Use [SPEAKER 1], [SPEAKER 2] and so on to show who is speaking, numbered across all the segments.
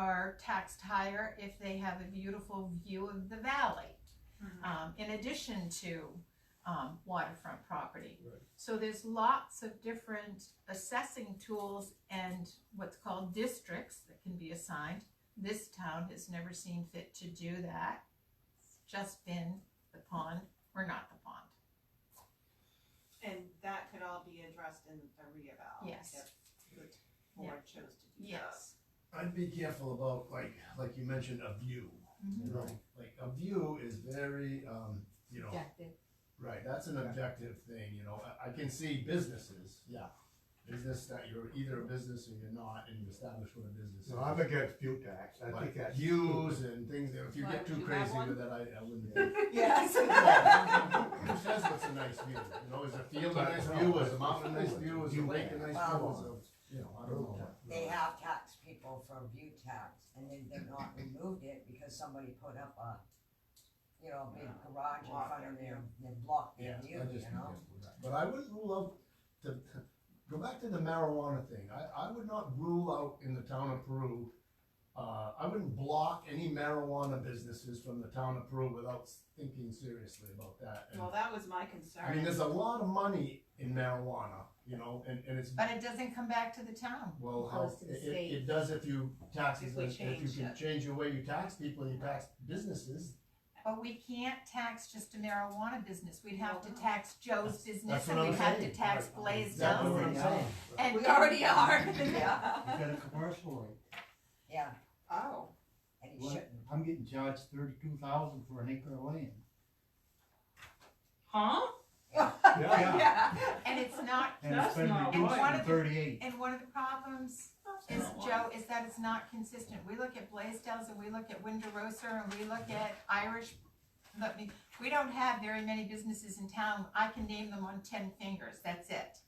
[SPEAKER 1] are taxed higher if they have a beautiful view of the valley.
[SPEAKER 2] Mhm.
[SPEAKER 1] Um, in addition to, um, waterfront property.
[SPEAKER 3] Right.
[SPEAKER 1] So there's lots of different assessing tools and what's called districts that can be assigned. This town has never seen fit to do that. It's just been the pond or not the pond.
[SPEAKER 2] And that could all be addressed in a reeval.
[SPEAKER 1] Yes.
[SPEAKER 2] If the board chose to do that.
[SPEAKER 1] Yes.
[SPEAKER 3] I'd be careful about like, like you mentioned, a view, you
[SPEAKER 4] Mm-hmm.
[SPEAKER 3] know, like a view is very, um, you know,
[SPEAKER 4] Objective.
[SPEAKER 3] right, that's an objective thing, you know, I, I can see businesses, yeah. Business that you're either a business or you're not, and you establish what a business is.
[SPEAKER 5] No, I'm against fuel tax, I think
[SPEAKER 3] But
[SPEAKER 5] that's.
[SPEAKER 3] views and things that, if you
[SPEAKER 4] Why,
[SPEAKER 3] get
[SPEAKER 4] would
[SPEAKER 3] too
[SPEAKER 4] you have
[SPEAKER 3] crazy
[SPEAKER 4] one?
[SPEAKER 3] with that, I, I wouldn't.
[SPEAKER 2] Yes.
[SPEAKER 3] Who says what's a nice view, you know, is a field a nice view, is a mountain a nice view, is a lake a nice view, is a, you know, I don't know.
[SPEAKER 6] They
[SPEAKER 5] Mm.
[SPEAKER 6] have taxed people for view tax, and then they've not removed it because somebody put up a, you know, a big garage in
[SPEAKER 2] Block
[SPEAKER 6] front of
[SPEAKER 2] their
[SPEAKER 6] their, their block,
[SPEAKER 3] Yeah,
[SPEAKER 6] their
[SPEAKER 3] I
[SPEAKER 6] view,
[SPEAKER 3] just
[SPEAKER 6] you know?
[SPEAKER 3] think that- But I wouldn't rule out the, go back to the marijuana thing, I, I would not rule out in the town of Peru. Uh, I wouldn't block any marijuana businesses from the town of Peru without thinking seriously about that. And,
[SPEAKER 2] Well, that was my concern.
[SPEAKER 3] I mean, there's a lot of money in marijuana, you know, and, and it's,
[SPEAKER 1] But it doesn't come back to the town.
[SPEAKER 3] well, how,
[SPEAKER 4] Goes to the
[SPEAKER 3] it,
[SPEAKER 4] state.
[SPEAKER 3] it does if you tax,
[SPEAKER 2] If
[SPEAKER 3] if
[SPEAKER 2] we
[SPEAKER 3] you
[SPEAKER 2] change
[SPEAKER 3] can
[SPEAKER 2] it.
[SPEAKER 3] change the way you tax people and you tax businesses,
[SPEAKER 1] But we can't tax just a marijuana business. We'd have to
[SPEAKER 2] Well, no.
[SPEAKER 1] tax Joe's business
[SPEAKER 3] That's
[SPEAKER 1] and
[SPEAKER 3] what
[SPEAKER 1] we'd
[SPEAKER 3] I'm
[SPEAKER 1] have to
[SPEAKER 3] saying.
[SPEAKER 1] tax
[SPEAKER 5] Right.
[SPEAKER 1] Blaze
[SPEAKER 3] exactly what I'm
[SPEAKER 1] Jones.
[SPEAKER 3] saying.
[SPEAKER 1] And
[SPEAKER 2] We already are.
[SPEAKER 6] Yeah.
[SPEAKER 7] I got a commercial rate.
[SPEAKER 6] Yeah,
[SPEAKER 2] Oh,
[SPEAKER 6] and he
[SPEAKER 7] What?
[SPEAKER 6] shouldn't,
[SPEAKER 7] I'm getting charged thirty-two thousand for an acre of land.
[SPEAKER 2] huh?
[SPEAKER 5] Yeah.
[SPEAKER 1] And it's not,
[SPEAKER 7] And it's
[SPEAKER 2] That's
[SPEAKER 7] been
[SPEAKER 2] not
[SPEAKER 7] reduced
[SPEAKER 1] right.
[SPEAKER 7] from thirty-eight.
[SPEAKER 1] and one of the problems is, Joe, is that it's not consistent. We look at Blaisdells and we look at Windorosa and we look at Irish, let me, we don't have very many businesses in town. I can name them on ten fingers, that's it.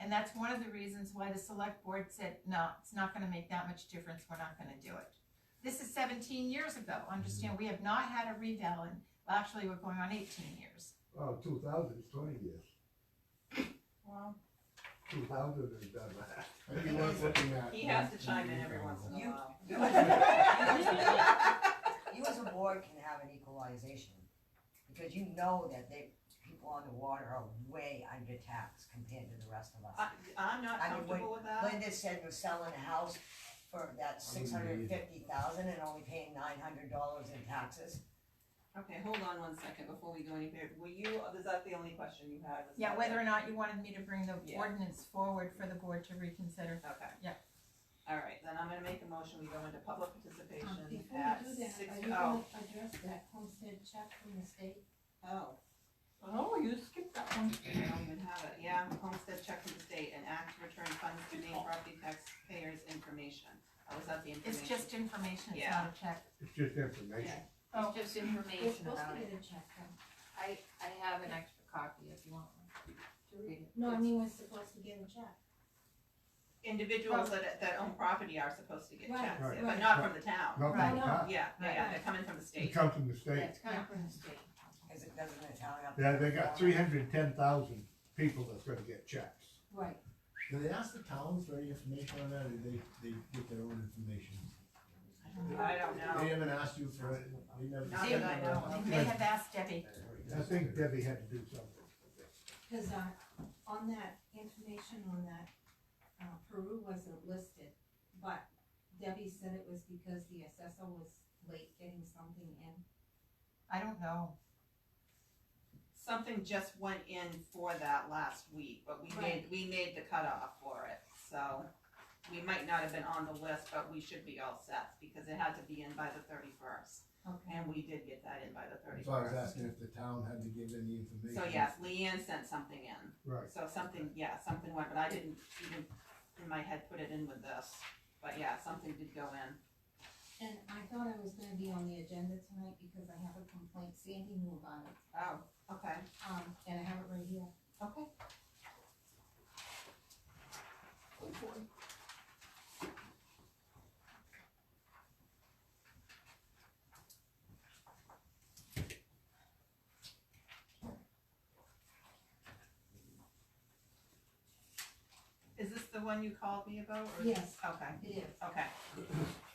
[SPEAKER 1] And that's one of the reasons why the select board said, no, it's not gonna make that much difference, we're not gonna do it. This is seventeen years ago, understand, we have not had a revale in, well, actually, we're going on eighteen years.
[SPEAKER 5] Oh, two thousand is twenty years,
[SPEAKER 2] Well,
[SPEAKER 5] two thousand is done.
[SPEAKER 3] I think worth looking at.
[SPEAKER 2] he has to chime in every once in a
[SPEAKER 6] You-
[SPEAKER 2] while.
[SPEAKER 6] you as a- you as a board can have an equalization, because you know that they, people on the water are way under tax compared to the rest of us.
[SPEAKER 2] I, I'm not
[SPEAKER 6] I mean, wait,
[SPEAKER 2] comfortable with that.
[SPEAKER 6] Linda said we're selling a house for that six hundred and fifty thousand and only paying nine hundred dollars in taxes.
[SPEAKER 2] Okay, hold on one second before we go any further. Were you, is that the only question you had? Was
[SPEAKER 1] Yeah,
[SPEAKER 2] that-
[SPEAKER 1] whether or not you wanted me to bring the
[SPEAKER 2] Yeah.
[SPEAKER 1] ordinance forward for the board to reconsider.
[SPEAKER 2] Okay.
[SPEAKER 1] Yeah.
[SPEAKER 2] All right, then I'm gonna make a motion, we go into public participation
[SPEAKER 4] Um, Before
[SPEAKER 2] at
[SPEAKER 4] we do that,
[SPEAKER 2] six,
[SPEAKER 4] are you
[SPEAKER 2] oh,
[SPEAKER 4] gonna address that homestead check from the state?
[SPEAKER 2] oh. Oh, you skipped that one, I don't even have it, yeah, homestead check from the state and act to return funds to main property taxpayers information. Oh, is that the information?
[SPEAKER 1] It's just information, it's
[SPEAKER 2] Yeah.
[SPEAKER 1] not a check.
[SPEAKER 5] It's just information.
[SPEAKER 1] Oh.
[SPEAKER 8] It's just
[SPEAKER 4] We're
[SPEAKER 8] information
[SPEAKER 4] supposed
[SPEAKER 8] about
[SPEAKER 4] to
[SPEAKER 8] it.
[SPEAKER 4] get a check from,
[SPEAKER 8] I, I have an extra copy if you want one to read it.
[SPEAKER 4] no, I mean, we're supposed to get a check.
[SPEAKER 2] Individuals that, that own property are supposed to get
[SPEAKER 4] Right,
[SPEAKER 2] checks, yeah, but
[SPEAKER 4] right.
[SPEAKER 2] not from the town.
[SPEAKER 5] Not
[SPEAKER 1] Right.
[SPEAKER 5] from the top,
[SPEAKER 2] Yeah, yeah, yeah,
[SPEAKER 8] Right.
[SPEAKER 2] they're coming from the
[SPEAKER 5] it
[SPEAKER 2] state.
[SPEAKER 5] comes from the state.
[SPEAKER 8] It's coming from the state.
[SPEAKER 6] Cause it doesn't the town up.
[SPEAKER 5] Yeah, they got three hundred and ten thousand people that's gonna get checks.
[SPEAKER 4] Right.
[SPEAKER 3] Do they ask the towns for any information on that, or they, they get their own information?
[SPEAKER 2] I don't know.
[SPEAKER 3] They haven't asked you for it, they never.
[SPEAKER 2] Not that I know.
[SPEAKER 1] They have asked Debbie.
[SPEAKER 5] I think Debbie had to do something.
[SPEAKER 4] Cause, uh, on that information on that, uh, Peru wasn't listed, but Debbie said it was because the assessor was late getting something in.
[SPEAKER 1] I don't know.
[SPEAKER 2] Something just went in for that last week, but we made,
[SPEAKER 4] Right.
[SPEAKER 2] we made the cutoff for it, so we might not have been on the list, but we should be all set, because it had to be in by the thirty-first,
[SPEAKER 4] Okay.
[SPEAKER 2] and we did get that in by the
[SPEAKER 3] That's why I was
[SPEAKER 2] thirty-first.
[SPEAKER 3] asking if the town had to give any information.
[SPEAKER 2] So yes, Leanne sent something in,
[SPEAKER 5] Right.
[SPEAKER 2] so something, yeah, something went, but I didn't even, in my head, put it in with this, but yeah, something did go in.
[SPEAKER 4] And I thought I was gonna be on the agenda tonight because I have a complaint, Sandy knew about it,
[SPEAKER 2] Oh, okay,
[SPEAKER 4] um, and I have it right here.
[SPEAKER 2] okay. Is this the one you called me about? or-
[SPEAKER 4] Yes,
[SPEAKER 2] Okay,
[SPEAKER 4] it is.
[SPEAKER 2] okay.